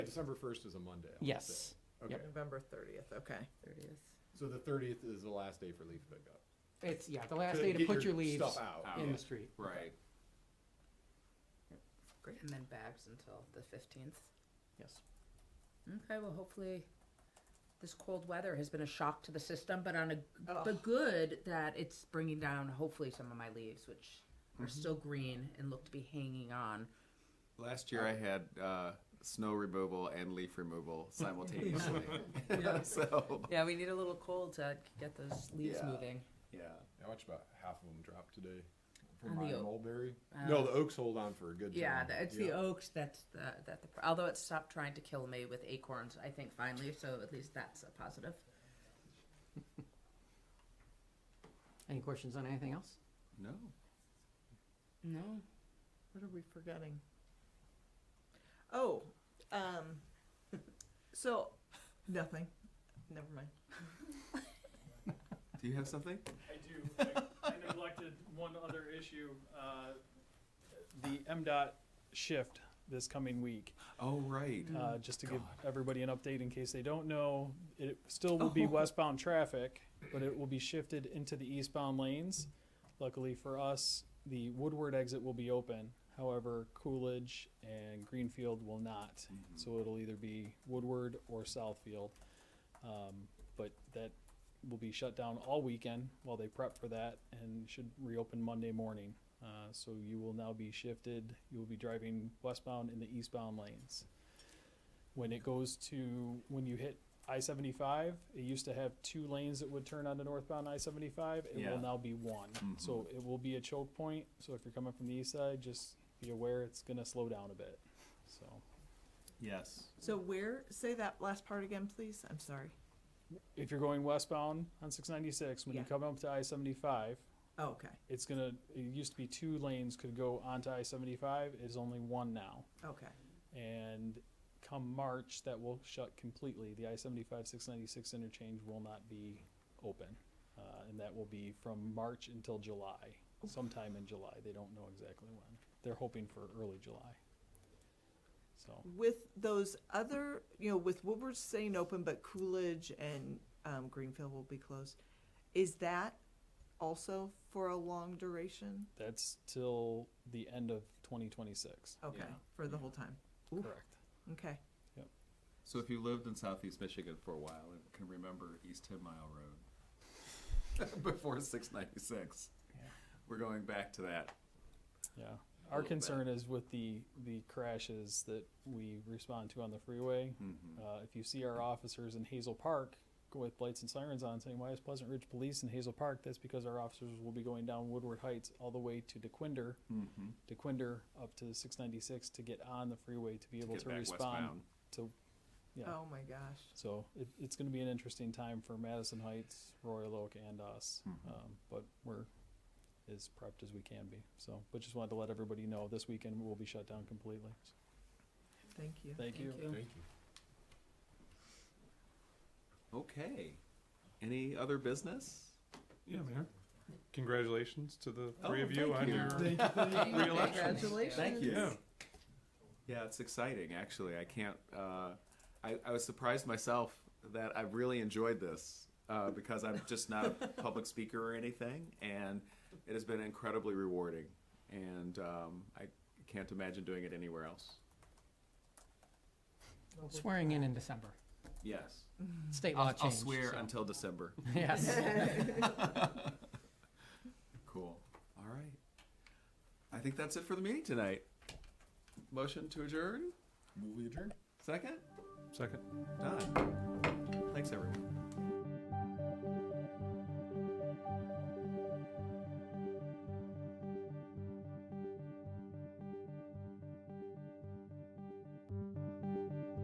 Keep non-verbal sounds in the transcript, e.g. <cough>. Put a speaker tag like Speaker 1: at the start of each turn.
Speaker 1: December first is a Monday. I wanna
Speaker 2: Yes.
Speaker 1: say.
Speaker 2: Yep.
Speaker 1: Okay,
Speaker 3: November 30th, okay.
Speaker 2: Thirtieth.
Speaker 1: so the thirtieth is the last day for leaf pickup.
Speaker 2: It's, yeah, the last day to
Speaker 1: get
Speaker 2: put your
Speaker 1: your
Speaker 2: leaves
Speaker 1: stuff out.
Speaker 2: in
Speaker 1: Yeah.
Speaker 2: the street.
Speaker 4: Right.
Speaker 5: And then bags until the fifteenth.
Speaker 2: Yes.
Speaker 5: Okay, well, hopefully, this cold weather has been a shock to the system, but on a, the
Speaker 3: Ugh.
Speaker 5: good that it's bringing down hopefully some of my leaves, which are still green and look to be hanging on.
Speaker 4: Last year I had uh, snow removal and leaf removal
Speaker 6: <laughs>
Speaker 4: simultaneously. <laughs> so
Speaker 5: Yeah, we need a little cold to get those leaves
Speaker 4: Yeah.
Speaker 5: moving.
Speaker 4: yeah.
Speaker 1: I watched about half of them drop today
Speaker 5: On
Speaker 1: from
Speaker 5: the
Speaker 1: my
Speaker 5: oak.
Speaker 1: mulberry.
Speaker 5: Uh,
Speaker 1: No, the oaks hold on for a good.
Speaker 5: Yeah,
Speaker 1: time.
Speaker 5: the- it's the
Speaker 1: Yeah.
Speaker 5: oaks that's the, that the, although it stopped trying to kill me with acorns, I think finally, so at least that's a positive.
Speaker 2: Any questions on anything else?
Speaker 4: No.
Speaker 5: No,
Speaker 3: What are we forgetting? Oh, um, <laughs> so, nothing. Never mind.
Speaker 4: Do you have something?
Speaker 6: I do. I- I neglected one other issue, uh, the MDOT shift this coming week.
Speaker 4: Oh right.
Speaker 6: Uh, just to give everybody an update in case they don't know, it still will
Speaker 3: Oh,
Speaker 6: be westbound traffic, but it will be shifted into the eastbound lanes. Luckily for us, the Woodward exit will be open. However, Coolidge and Greenfield will not. So it'll either be Woodward or Southfield. Um, but that will be shut down all weekend while they prep for that and should reopen Monday morning. Uh, so you will now be shifted. You will be driving westbound in the eastbound lanes. When it goes to when you hit I seventy five, it used to have two lanes that would turn onto northbound I seventy five. It
Speaker 4: Yeah.
Speaker 6: will now be one. So it will be a choke point. So if you're coming from the east side, just be aware it's gonna slow down a bit. So
Speaker 4: Yes.
Speaker 3: So where, say that last part again, please, I'm sorry.
Speaker 6: if you're going westbound on six ninety six, when you
Speaker 3: Yeah.
Speaker 6: come up to I seventy five,
Speaker 3: Oh, okay,
Speaker 6: it's gonna it used to be two lanes could go onto I seventy five, it is only one now.
Speaker 3: okay.
Speaker 6: And come March that will shut completely. The I seventy five six ninety six interchange will not be open. Uh, and that will be from March until July. Sometime in July. They don't know exactly when. They're hoping for early July. So
Speaker 3: With those other, you know, with Woodward staying open, but Coolidge and um, Greenfield will be closed, is that also for a long duration?
Speaker 6: that's till the end of twenty twenty six.
Speaker 3: Okay,
Speaker 4: Yeah.
Speaker 3: for the whole time, Oof.
Speaker 6: Correct.
Speaker 3: okay.
Speaker 4: So if you lived in Southeast Michigan for a while and can remember East Ten Mile Road <laughs> before six ninety six,
Speaker 6: Yeah.
Speaker 4: we're going back to that.
Speaker 6: Yeah.
Speaker 4: a
Speaker 6: Our
Speaker 4: little bit.
Speaker 6: concern is with the, the crashes that we respond to on the freeway.
Speaker 4: Mhm.
Speaker 6: Uh, if you see our officers in Hazel Park go with lights and sirens on saying, why is Pleasant Ridge Police in Hazel Park? That's because our officers will be going down Woodward Heights all the way to DeQuinder,
Speaker 4: Mhm.
Speaker 6: DeQuinder up to six ninety-six to get on the freeway to be able
Speaker 4: Get
Speaker 6: to
Speaker 4: back
Speaker 6: respond
Speaker 4: westbound.
Speaker 6: to, yeah.
Speaker 3: Oh, my gosh.
Speaker 6: So it, it's gonna be an interesting time for Madison Heights, Royal Oak and us. Um, but we're as prepped as we can be. So, but just wanted to let everybody know this weekend we'll be shut down completely.
Speaker 3: Thank you.
Speaker 6: Thank you.
Speaker 1: Thank you.
Speaker 4: Okay. Any other business?
Speaker 7: Yeah, man. Congratulations to the
Speaker 4: Oh,
Speaker 7: three of you on
Speaker 4: thank
Speaker 7: your.
Speaker 3: Congratulations.
Speaker 4: Thank you.
Speaker 7: Yeah.
Speaker 4: Yeah, it's exciting, actually. I can't, uh, I, I was surprised myself that I've really enjoyed this uh, because I'm just not a public speaker or anything. And it has been incredibly rewarding. And um, I can't imagine doing it anywhere else.
Speaker 2: Swearing in in December.
Speaker 4: Yes.
Speaker 2: State law
Speaker 4: I'll,
Speaker 2: changed.
Speaker 4: I'll swear
Speaker 2: so- <laughs>
Speaker 4: until December.
Speaker 2: Yes.
Speaker 4: <laughs> Cool. All right. I think that's it for the meeting tonight. Motion to adjourn?
Speaker 1: Move adjourned.
Speaker 4: Second?
Speaker 7: Second.
Speaker 4: Done. Thanks, everyone.